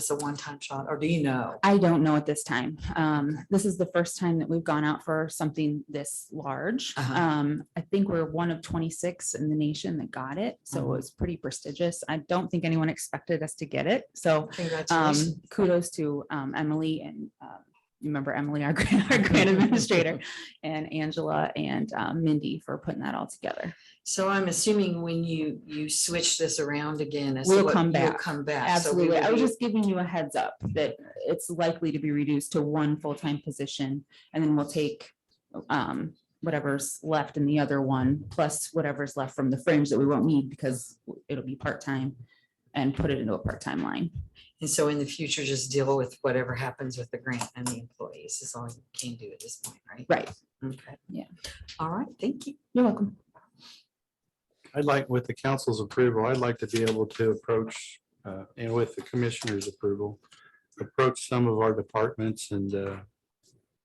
it's a one-time shot, or do you know? I don't know at this time. Um, this is the first time that we've gone out for something this large. Uh-huh. Um, I think we're one of twenty-six in the nation that got it, so it Mhm. was pretty prestigious. I don't think anyone expected us to get it, so um, Congratulations. kudos to um, Emily and um, you remember Emily, our grant, our grant administrator, and Angela and um, Mindy for putting that all together. So I'm assuming when you, you switch this around again. as to We'll what- come you'll back. Come back. So we Absolutely. will I was be- just giving you a heads up that it's likely to be reduced to one full-time position, and then we'll take um, whatever's left in the other one, plus whatever's left from the fringe that we won't need because it'll be part-time and put it into a part-time line. And so in the future, just deal with whatever happens with the grant and the employees is all you can do at this point, right? Right. Okay. Yeah. All right, thank you. You're welcome. I'd like, with the council's approval, I'd like to be able to approach, uh, and with the commissioner's approval, approach some of our departments and uh,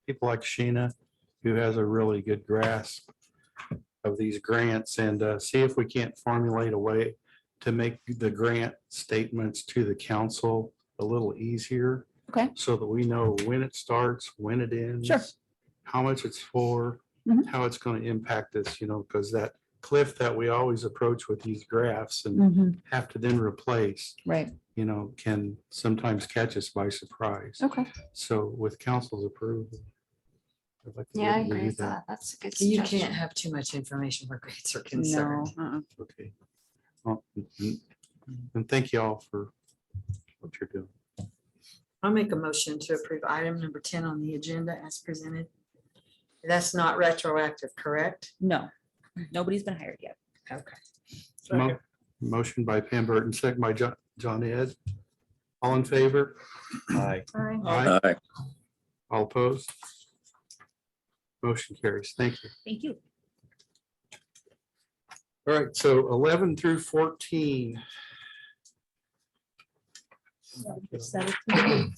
people like Sheena, who has a really good grasp of these grants, and uh, see if we can't formulate a way to make the grant statements to the council a little easier. Okay. So that we know when it starts, when it ends. Sure. How much it's for, Mhm. how it's going to impact us, you know, because that cliff that we always approach with these graphs Hmm. and Mm-hmm. have to then replace, Right. you know, can sometimes catch us by surprise. Okay. So with council's approval. I'd like to Yeah, I read agree with that. that. That's a good You can't suggestion. have too much information where grants are No. concerned. uh-uh. Okay. Well, And and thank you all for what you're doing. I'll make a motion to approve item number ten on the agenda as presented. That's not retroactive, correct? No, nobody's been hired yet. Okay. Mo- Motion by Pam Burton, second by Jo- John Ed. All in favor? Aye. Aye. Aye. All opposed? Motion carries. Thank you. Thank you. All right, so eleven through fourteen. Seventeen.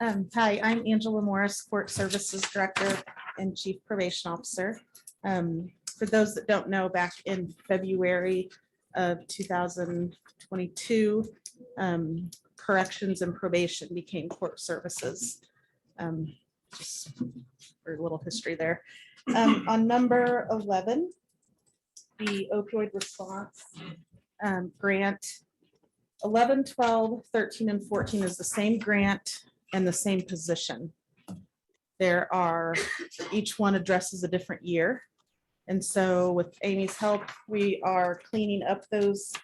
Um, Hi, I'm Angela Morris, Court Services Director and Chief Probation Officer. Um, For those that don't know, back in February of 2022, um, corrections and probation became court services. Um, Just for a little history there. Um, On number 11, the opioid response um, grant 11, 12, 13, and 14 is the same grant and the same position. There are, each one addresses a different year. And so with Amy's help, we are cleaning up those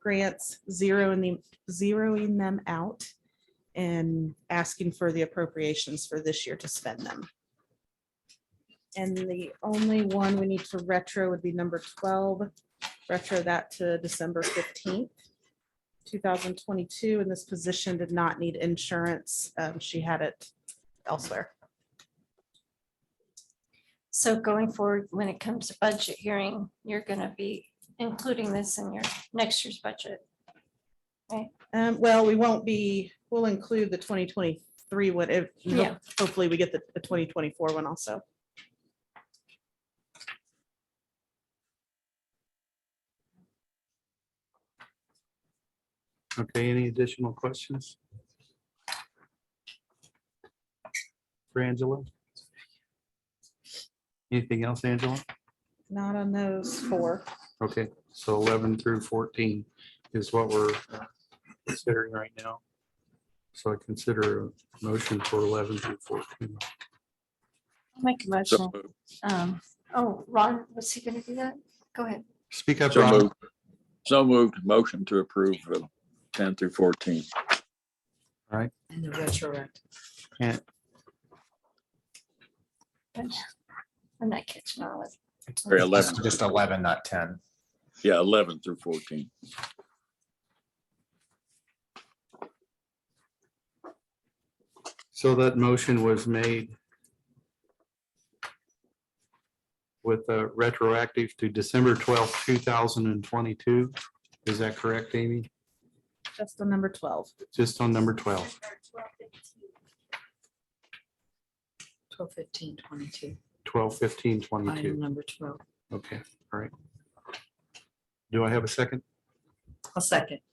grants, zeroing them, zeroing them out and asking for the appropriations for this year to spend them. And the only one we need to retro would be number 12, retro that to December 15th. 2022, and this position did not need insurance. Um, She had it elsewhere. So going forward, when it comes to budget hearing, you're going to be including this in your next year's budget. Um, Well, we won't be, we'll include the 2023 one if, Yeah. hopefully we get the the 2024 one also. Okay, any additional questions? For Angela? Anything else, Angela? Not on those four. Okay, so eleven through fourteen is what we're considering right now. So I consider a motion for eleven through fourteen. Make a motion. So moved. Um, Oh, Ron, was he going to do that? Go ahead. Speak up, So Ron. moved. So moved. Motion to approve uh, ten through fourteen. And the retroactive. I'm not catching all of Or it. eleven, Just just eleven, not ten. yeah, eleven through fourteen. So that motion was made with a retroactive to December twelfth, two thousand and twenty-two. Is that correct, Amy? Just on number 12. Just on number twelve, Twelve, fifteen, twenty-two, twelve, fifteen, item twenty-two. number twelve. Okay, all right. Do I have a second? A second.